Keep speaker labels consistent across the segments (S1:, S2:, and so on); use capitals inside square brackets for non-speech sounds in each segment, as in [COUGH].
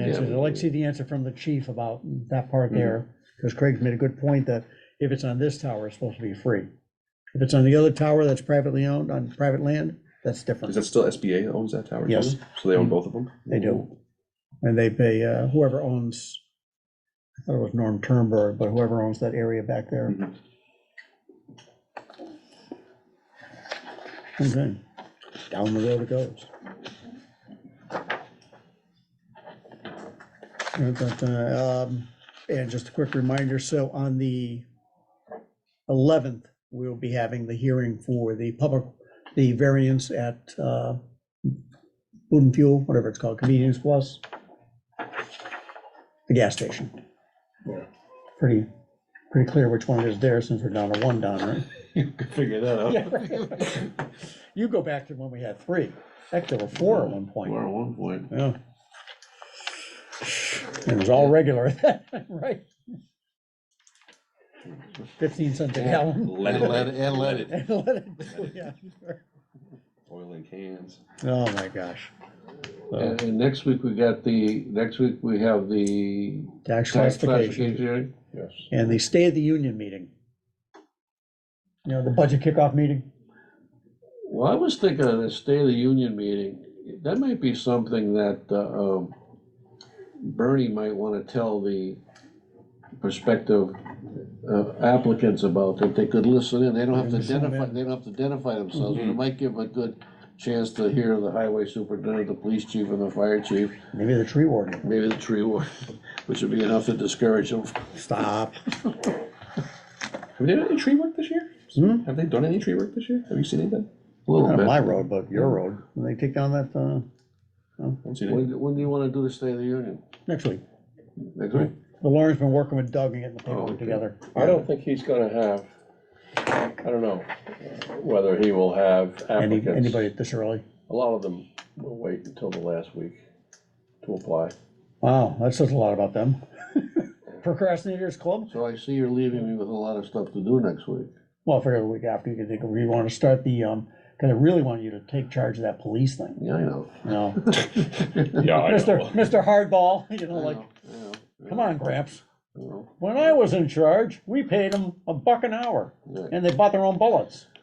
S1: answers. I'd like to see the answer from the chief about that part there, because Craig's made a good point that if it's on this tower, it's supposed to be free. If it's on the other tower that's privately owned, on private land, that's
S2: Is
S1: different.
S2: that still SBA that owns that tower? too?
S1: Yes. Mm.
S2: So they own both of them?
S1: They do. And they pay, uh, whoever owns, I thought it was Norm Turnberg, but whoever owns that area back there.
S3: Mm-hmm. [LAUGHS]
S2: Mhm.
S1: Okay. Down the road it goes. Uh, but, uh, um, And just a quick reminder, so on the 11th, we'll be having the hearing for the public, the variance at uh, Food and Fuel, whatever it's called, Convenience Plus, the gas station.
S2: Yeah.
S1: Pretty, pretty clear which one it is there since we're down to one, Don, right?
S2: You could figure that out.
S1: [LAUGHS] You go back to when we had three. Heck, there were four at one point.
S2: Or at one point.
S1: Yeah. It was all regular at that time, right? Fifteen cents a gallon.
S2: Leaded.
S4: And leaded.
S1: And let it- yeah.
S2: Oil in cans.
S1: Oh, my gosh. So,
S4: And, and next week we got the, next week we have the
S1: Tax
S4: tax
S1: classification
S4: classification hearing.
S2: Yes.
S1: and the State of the Union meeting. You know, the budget kickoff meeting.
S4: Well, I was thinking of the State of the Union meeting, that might be something that, uh, um, Bernie might wanna tell the prospective uh, applicants about, that they could listen in, they don't have to
S1: Listen in.
S4: identify, they don't have to identify themselves, but it might give a good chance to hear the highway superintendent, the police chief, and the fire chief,
S1: Maybe the tree warden.
S4: maybe the tree warden, [LAUGHS] which would be enough to discourage them.
S1: Stop.
S2: Have they done any tree work this year?
S1: Hmm?
S2: Have they done any tree work this year? Have you seen anything?
S4: A little
S1: Not on
S4: bit.
S1: my road, but your road. When they take down that, uh,
S2: I haven't seen anything.
S4: When, when do you wanna do the State of the Union?
S1: next week.
S4: Next week?
S1: But Lauren's been working with Doug and getting the paperwork
S4: okay.
S1: together.
S3: I don't think he's gonna have, I don't know whether he will have
S1: Any,
S3: applicants.
S1: anybody this early.
S3: A lot of them will wait until the last week to apply.
S1: Wow, that says a lot about them. [LAUGHS] Procrastinators Club?
S4: So I see you're leaving me with a lot of stuff to do next week.
S1: Well, I figure the week after you can think of, you want to start the, um, because I really want you to take charge of that police thing,
S4: Yeah, I know. [LAUGHS]
S1: you know?
S2: Yeah, Oh, I
S1: Mr.
S2: know.
S1: Mr. Hardball, [LAUGHS] you know,
S4: I
S1: like,
S4: know, I know, I
S1: come
S4: know,
S1: on, Gramps.
S4: I know.
S1: When I was in charge, we paid them a buck an hour
S4: Yeah,
S1: and they bought their own bullets. [LAUGHS]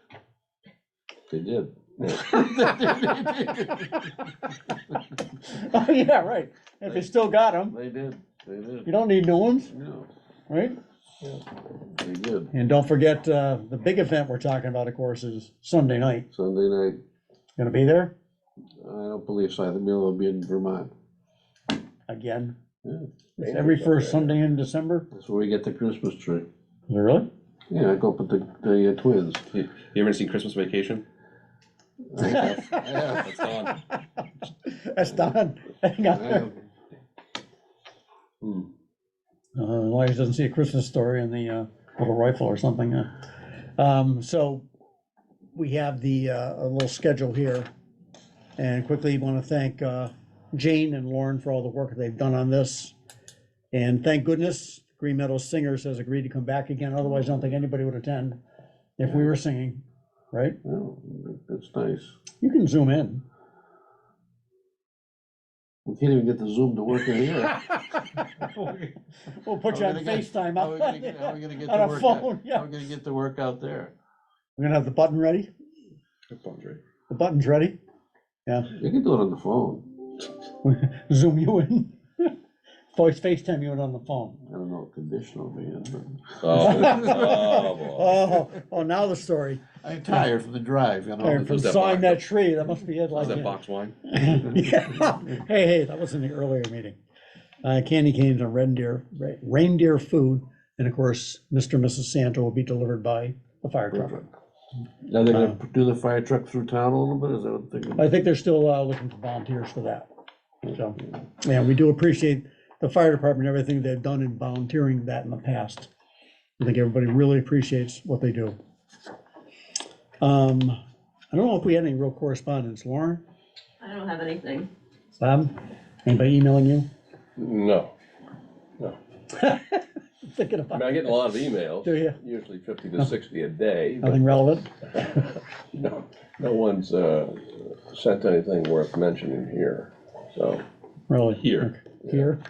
S4: They did.
S1: Oh, yeah, right. If they still got them,
S4: They did, they
S1: you
S4: did.
S1: don't need new ones,
S4: No,
S1: right?
S4: they did.
S1: And don't forget, uh, the big event we're talking about, of course, is Sunday night.
S4: Sunday night,
S1: Gonna be there
S4: I don't believe so. I think they'll be in Vermont.
S1: again.
S4: Yeah.
S1: It's every first Sunday in December.
S4: That's where we get the Christmas tree.
S1: Really?
S4: Yeah, I go up with the, the uh, twins.
S2: You you ever seen Christmas Vacation?
S4: I have, I have,
S2: It's on.
S1: That's [LAUGHS] done.
S4: I have. Hmm.
S1: Uh, Larry doesn't see a Christmas story in the uh, little rifle or something. uh. Um, So we have the, uh, a little schedule here. And quickly want to thank uh, Jane and Lauren for all the work they've done on this. And thank goodness Green Meadows Singers has agreed to come back again. Otherwise, I don't think anybody would attend if we were singing, right?
S4: Well, that's nice.
S1: You can zoom in.
S4: We can't even get the Zoom to work in
S1: [LAUGHS]
S4: here.
S1: We'll put you
S4: How
S1: on
S4: we gonna get-
S1: FaceTime.
S4: How are we gonna get, how are we gonna get the
S1: On a
S4: work?
S1: phone,
S4: out-
S1: yeah.
S4: How are we gonna get the work out there?
S1: We're gonna have the button ready.
S2: That sounds right.
S1: The button's ready. [LAUGHS]
S4: You can do it on the phone.
S1: Zoom you in. [LAUGHS] Voice FaceTime you in on the phone.
S4: I don't know what condition I'll be in, but
S1: [LAUGHS]
S2: Oh, oh, boy.
S1: Oh, oh, now the story.
S4: I'm tired from the drive, you know.
S1: Tired from
S2: was that
S1: sawing
S2: box?
S1: that tree. That must be it like.
S2: Is that
S1: Uh, yeah. [LAUGHS]
S2: box wine?
S1: Yeah. Hey, hey, that was in the earlier meeting. Uh, candy canes and reindeer, re- reindeer food. And of course, Mr. and Mrs. Santa will be delivered by the fire truck.
S4: Now they're gonna do the fire truck through town a little bit, is that what they're gonna?
S1: I think they're still uh, looking for volunteers for that. So, yeah, we do appreciate the fire department, everything they've done in volunteering that in the past. I think everybody really appreciates what they do. Um, I don't know if we had any real correspondence. Lauren,
S5: I don't have anything.
S1: Bob, anybody emailing you?
S3: No,
S1: Thinking
S3: I
S1: about,
S3: mean, I get a lot of
S1: do
S3: emails,
S1: you?
S3: usually fifty to sixty a day, but
S1: Nothing relevant?
S3: no, no one's, uh, sent anything worth mentioning here, so.
S1: Really?
S2: Here.
S1: here.